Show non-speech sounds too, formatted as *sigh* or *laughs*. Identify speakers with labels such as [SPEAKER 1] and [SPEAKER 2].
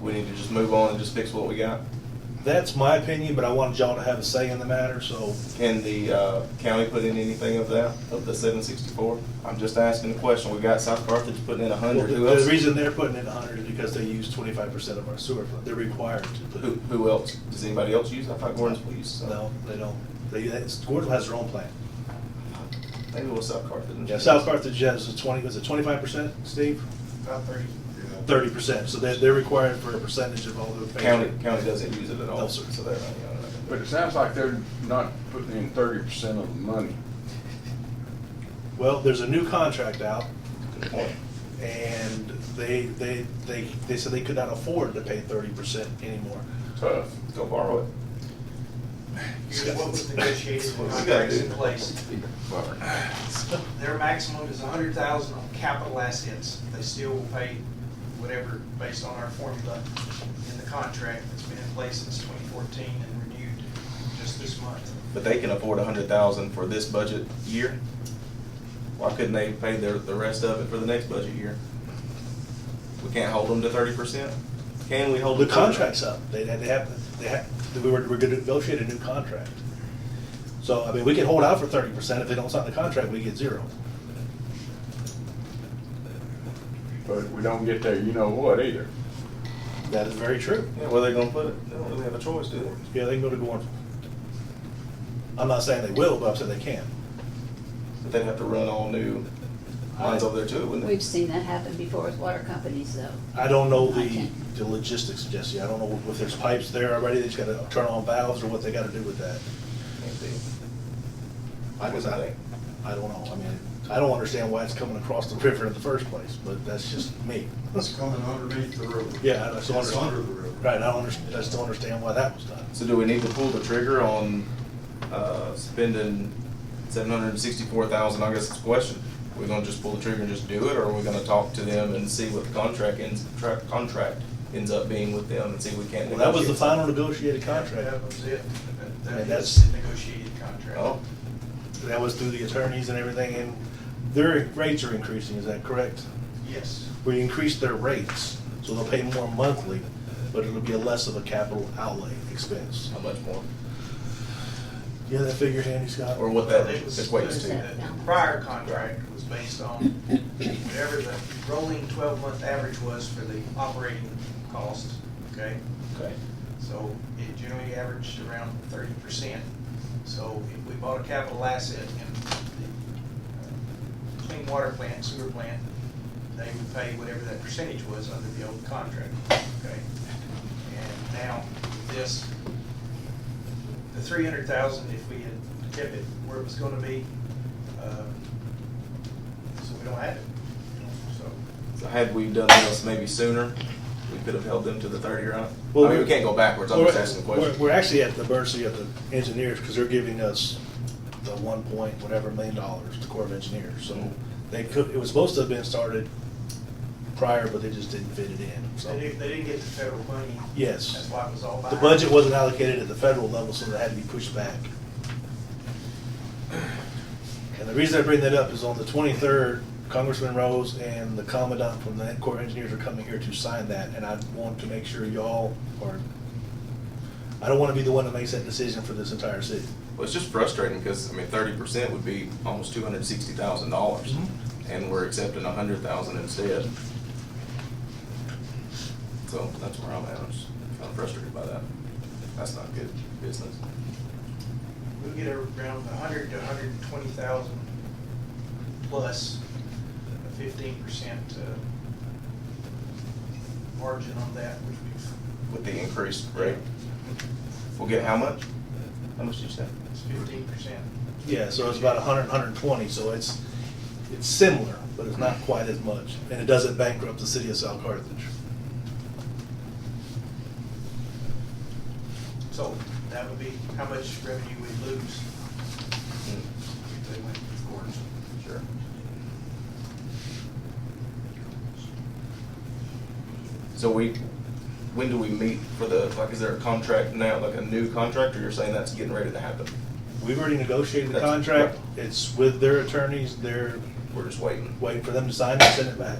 [SPEAKER 1] we need to just move on and just fix what we got?
[SPEAKER 2] That's my opinion, but I wanted y'all to have a say in the matter, so
[SPEAKER 1] Can the uh, county put in anything of that, of the seven sixty-four? I'm just asking the question. We got South Carthage putting in a
[SPEAKER 2] Well,
[SPEAKER 1] hundred.
[SPEAKER 2] The
[SPEAKER 1] Who
[SPEAKER 2] the
[SPEAKER 1] else?
[SPEAKER 2] reason they're putting in hundred is because they use twenty-five percent of our sewer fund. They're required to
[SPEAKER 1] Who,
[SPEAKER 2] put.
[SPEAKER 1] who else? Does anybody else use? it? I thought Gordon's police. so-
[SPEAKER 2] No, they don't. They, that's- Gordon has their own plan.
[SPEAKER 1] Maybe it was South Carthage.
[SPEAKER 2] South Carthage has a twenty, was it twenty-five percent, Steve?
[SPEAKER 3] About thirty.
[SPEAKER 2] Thirty percent, so they're, they're required for a percentage of all the.
[SPEAKER 1] County, county doesn't use it at all,
[SPEAKER 2] No, sir.
[SPEAKER 1] so they're, not, you know, not
[SPEAKER 4] But
[SPEAKER 1] gonna
[SPEAKER 4] it
[SPEAKER 1] do
[SPEAKER 4] sounds like they're not putting in thirty percent of the money.
[SPEAKER 2] Well, there's a new contract out,
[SPEAKER 1] it. Good point.
[SPEAKER 2] and they, they, they, they said they could not afford to pay thirty percent anymore.
[SPEAKER 1] Tough. Go borrow it.
[SPEAKER 3] Here's what was negotiated
[SPEAKER 1] What
[SPEAKER 3] with
[SPEAKER 1] we gotta
[SPEAKER 3] contracts
[SPEAKER 1] do.
[SPEAKER 3] in place.
[SPEAKER 4] But
[SPEAKER 3] Their maximum is a hundred thousand on capital assets. They still will pay whatever, based on our formula in the contract that's been in place since twenty fourteen and renewed just this month.
[SPEAKER 1] But they can afford a hundred thousand for this budget year? Why couldn't they pay their, the rest of it for the next budget year? We can't hold them to thirty percent? Can we hold
[SPEAKER 2] The
[SPEAKER 1] them? to-
[SPEAKER 2] contract's up. They, they have, they have, we were, we're gonna negotiate a new contract. So, I mean, we can hold out for thirty percent. If they don't sign the contract, we get zero.
[SPEAKER 4] we don't get there, you know what either.
[SPEAKER 2] That is very true.
[SPEAKER 1] Yeah, where they gonna put it? They don't really have a choice, do they?
[SPEAKER 2] Yeah, they can go to Gorn. I'm not saying they will, but I'm saying they can.
[SPEAKER 1] But they'd have to run all new lines over there too, wouldn't
[SPEAKER 5] We've
[SPEAKER 1] they?
[SPEAKER 5] seen that happen before with water companies, though.
[SPEAKER 2] I don't know the,
[SPEAKER 5] Okay.
[SPEAKER 2] the logistics, Jesse. I don't know if there's pipes there already. They just gotta turn on valves or what they gotta do with that.
[SPEAKER 1] Can't be.
[SPEAKER 2] I guess I, I don't know. I mean, I don't understand why it's coming across the river in the first place, but that's just *laughs* me.
[SPEAKER 6] It's coming underneath the river.
[SPEAKER 2] Yeah, I just
[SPEAKER 6] It's under the
[SPEAKER 2] understand.
[SPEAKER 6] river.
[SPEAKER 2] Right, I don't understand, I just don't understand why that was done.
[SPEAKER 1] So do we need to pull the trigger on, uh, spending seven hundred and sixty-four thousand, I guess it's a question. We're gonna just pull the trigger and just do it, or are we gonna talk to them and see what the contract ends, tra- contract ends up being with them and see if we can't
[SPEAKER 2] Well, that was the
[SPEAKER 1] negotiate
[SPEAKER 2] final
[SPEAKER 1] something?
[SPEAKER 2] negotiated contract.
[SPEAKER 3] That was it. That-
[SPEAKER 2] And
[SPEAKER 3] That
[SPEAKER 2] that's-
[SPEAKER 3] is the negotiated contract.
[SPEAKER 1] Oh,
[SPEAKER 2] That was through the attorneys and everything, and their rates are increasing, is that correct?
[SPEAKER 3] Yes.
[SPEAKER 2] We increased their rates, so they'll pay more monthly, but it'll be a less of a capital outlay expense.
[SPEAKER 1] how much more?
[SPEAKER 2] You have that figure handy, Scott?
[SPEAKER 1] Or what
[SPEAKER 3] Well,
[SPEAKER 1] that
[SPEAKER 3] it was-
[SPEAKER 1] equates
[SPEAKER 3] the-
[SPEAKER 1] to.
[SPEAKER 3] The prior contract was based on whatever the rolling twelve-month average was for the operating cost, okay?
[SPEAKER 1] Okay.
[SPEAKER 3] So it generally averaged around thirty percent. So if we bought a capital asset in the uh, clean water plant, sewer plant, they would pay whatever that percentage was under the old contract, okay? And now, this, the three hundred thousand, if we had kept it where it was gonna be, uh, so we don't have it, you know, so.
[SPEAKER 1] So had we done this maybe sooner, we could have held them to the thirty, right? I
[SPEAKER 2] Well,
[SPEAKER 1] mean, we
[SPEAKER 2] we're-
[SPEAKER 1] can't go backwards, I'm
[SPEAKER 2] We're-
[SPEAKER 1] just asking a question.
[SPEAKER 2] We're, we're actually at the mercy of the engineers, because they're giving us the one point whatever million dollars, the Corps of Engineers, so they could, it was supposed to have been started prior, but they just didn't fit it in, so.
[SPEAKER 3] They didn't, they didn't get the federal money.
[SPEAKER 2] Yes.
[SPEAKER 3] That's why it was all
[SPEAKER 2] The
[SPEAKER 3] behind.
[SPEAKER 2] budget wasn't allocated at the federal level, so that had to be pushed back. And the reason I bring that up is on the twenty-third, Congressman Rose and the Commandant from the Corps of Engineers are coming here to sign that, and I want to make sure y'all are, I don't wanna be the one that makes that decision for this entire city.
[SPEAKER 1] Well, it's just frustrating because, I mean, thirty percent would be almost two hundred and sixty thousand dollars,
[SPEAKER 2] Mhm.
[SPEAKER 1] and we're accepting a hundred thousand instead. So that's where I'm at, I'm just kind of frustrated by that. That's not good business.
[SPEAKER 3] We'll get around a hundred to a hundred and twenty thousand plus a fifteen percent uh, margin on that, which we,
[SPEAKER 1] With the increased rate, we'll get how much? How much did you say?
[SPEAKER 3] it's fifteen percent.
[SPEAKER 2] Yeah, so it's about a hundred, hundred and twenty, so it's, it's similar, but it's not quite as much, and it doesn't bankrupt the city of South Carthage.
[SPEAKER 3] So that would be how much revenue we'd lose if they went with Gordon's.
[SPEAKER 1] Sure. So we, when do we meet for the, like, is there a contract now, like a new contract, or you're saying that's getting ready to happen?
[SPEAKER 2] We've already negotiated the
[SPEAKER 1] That's-
[SPEAKER 2] contract, it's with their attorneys, they're
[SPEAKER 1] We're just waiting.
[SPEAKER 2] waiting for them to sign and send it back.